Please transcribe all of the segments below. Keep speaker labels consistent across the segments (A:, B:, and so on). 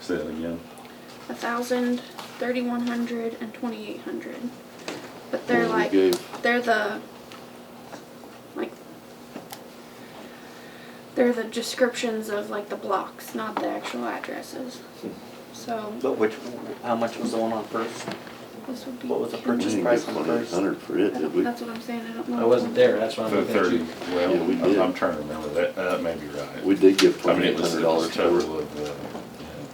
A: Say that again.
B: a thousand, thirty-one hundred, and twenty-eight hundred. But
C: Well,
B: they're
C: we
B: like
C: gave-
B: they're the like they're the descriptions of like the blocks, not the actual addresses. So
D: But which, how much was the one on first?
B: this would be.
D: What was the
C: We
D: purchase
C: didn't
D: price
C: get
D: on first.
C: twenty-eight hundred for
B: I
C: it, did
B: don't-
C: we?
B: That's what I'm saying. I don't know.
E: I wasn't there, that's why I'm
A: The
E: looking at
A: thirty,
E: you.
A: well,
C: Yeah, we
A: I'm-
C: did.
A: I'm trying to remember that, that may be right.
C: We did give
A: I mean,
C: twenty-eight
A: it was,
C: hundred
A: it
C: dollars
A: was
C: for
A: total
C: it.
A: of, uh.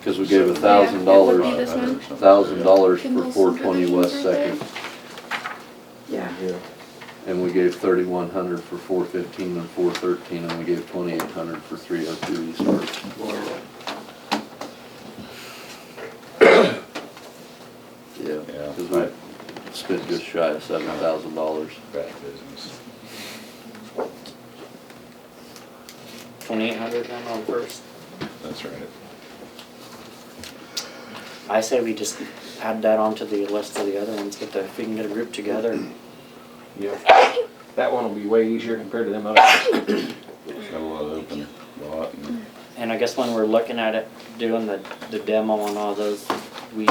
C: Cause we gave a
B: Yeah, it
C: thousand
B: would be
C: dollars,
B: this one.
C: thousand dollars
B: Can
C: for
B: those
C: four twenty West
B: subdivisions right
C: Second,
B: Yeah.
C: and we gave thirty-one hundred for four fifteen and four thirteen, and we gave twenty-eight hundred for three oh two East First. Yeah,
A: Yeah.
C: cause we spent just shy of seven thousand dollars.
A: Bad business.
D: Twenty-eight hundred then on first?
A: That's right.
D: I say we just add that onto the list of the other ones, get the, if we can get a group together and
E: Yeah. That one will be way easier compared to them others.
A: Got a lot of open lot and
D: And I guess when we're looking at it, doing the, the demo and all those, we,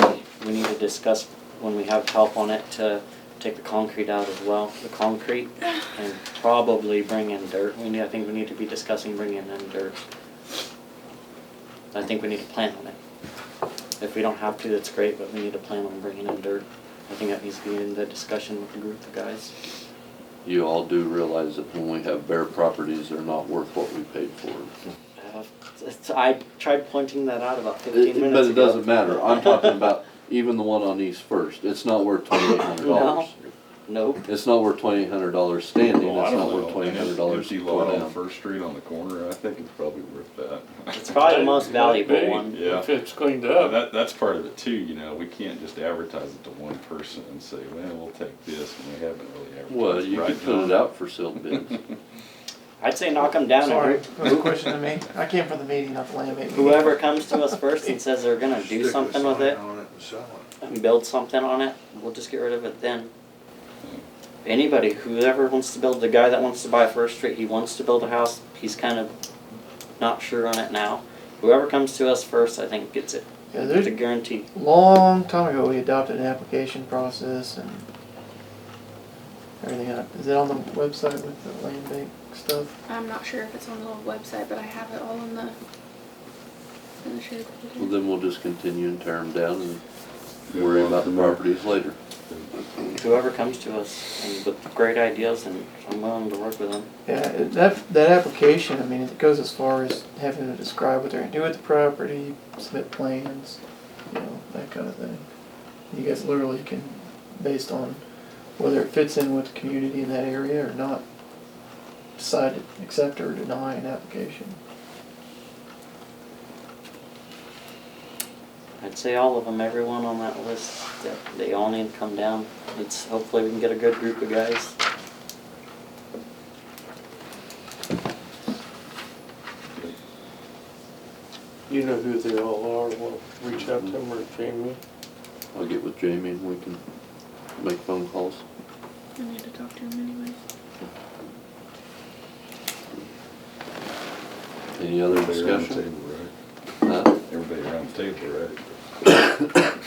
D: we need to discuss when we have help on it to take the concrete out as well, the concrete, and probably bring in dirt. We need, I think we need to be discussing bringing in dirt. I think we need to plan on it. If we don't have to, that's great, but we need to plan on bringing in dirt. I think that needs to be in the discussion with the group of guys.
C: You all do realize that when we have bare properties, they're not worth what we paid for.
D: Uh, it's- I tried pointing that out about
C: It-
D: fifteen minutes
C: it-
D: ago.
C: But it doesn't matter, I'm talking about even the one on East First, it's not worth twenty-eight hundred dollars.
D: Nope.
C: It's not worth twenty-eight hundred dollars standing,
A: Well, I
C: it's
A: don't
C: not
A: know.
C: worth twenty-eight hundred dollars
A: Empty lot
C: tore
A: on
C: down.
A: First Street on the corner, I think it's probably worth that.
D: It's probably the most valuable
F: Big,
D: one.
A: Yeah.
F: If it's cleaned
A: Yeah,
F: up,
A: That, that's part of it too, you know, we can't just advertise it to one person and say, well, we'll take this, and we haven't really advertised.
C: Well, you
A: right
C: could put it
A: now.
C: out for sealed bids.
D: I'd say knock them down.
F: Sorry.
D: And
G: That was a question to me. I came for the meeting, not the land meeting.
D: whoever comes to us first and says they're gonna do something with it and build something on it, we'll just get rid of it then. Anybody, whoever wants to build, the guy that wants to buy First Street, he wants to build a house. He's kind of not sure on it now. Whoever comes to us first, I think gets it.
G: Yeah,
D: It's a
G: there's,
D: guarantee.
G: long time ago, we adopted an application process and everything. else. Is it on the website with the land bank stuff?
B: I'm not sure if it's on the old website, but I have it all in the in the shared.
C: Well, then we'll just continue and tear them down and
A: Yeah,
C: worry
A: well,
C: about the
A: from there.
C: properties later.
D: Whoever comes to us and with great ideas, and I'm willing to work with them.
G: Yeah, it- that, that application, I mean, it goes as far as having to describe what they're gonna do with the property, submit plans, you know, that kind of thing. You guys literally can, based on whether it fits in with the community in that area or not, decide to accept or deny an application.
D: I'd say all of them, everyone on that list, that they all need to come down. It's, hopefully we can get a good group of guys.
F: you know who they all are, we'll reach out to them or Jamie.
C: I'll get with Jamie and we can make phone calls.
B: I need to talk to him anyways.
C: Any other
A: Everybody around the
C: discussion?
A: table,
C: Uh,
A: right?
C: Huh?
A: Everybody around the table, right?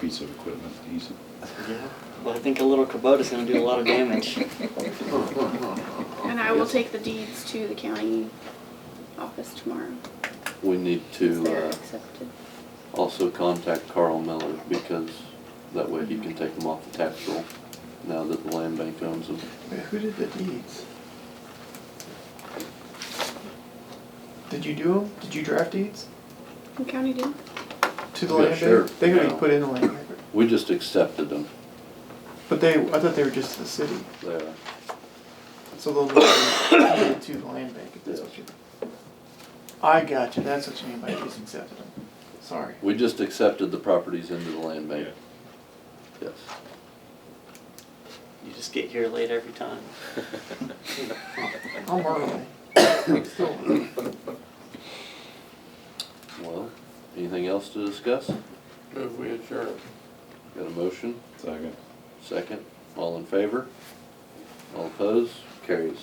A: Piece of equipment, decent.
D: Yeah. Well, I think a little Kubota's gonna do a lot of damage.
B: And I will
C: Oh, Yes.
B: take the deeds to the county office tomorrow.
C: We need
B: if
C: to,
B: they're
C: uh,
B: accepted.
C: also contact Carl Miller because that way he can take them off the tax roll now that the land bank owns them.
G: Wait, Who did the deeds? Did you do them? Did you draft deeds
B: The county did.
G: to the
C: Yeah,
G: land
C: sure.
G: bank? They gotta be
C: Yeah.
G: put in the land bank.
C: We just accepted them.
G: But they, I thought they were just to the city,
C: They are.
G: so they'll be to the land bank if that's what you. I got you, that's what you mean by just accepted them. Sorry.
C: We just accepted the properties into the land bank. Yes.
D: You just get here late every time.
G: I'm early. Still.
C: Well, anything else to discuss?
F: Move we adjourn.
C: Got a motion?
A: Second.
C: Second, all in favor? All opposed? Carries.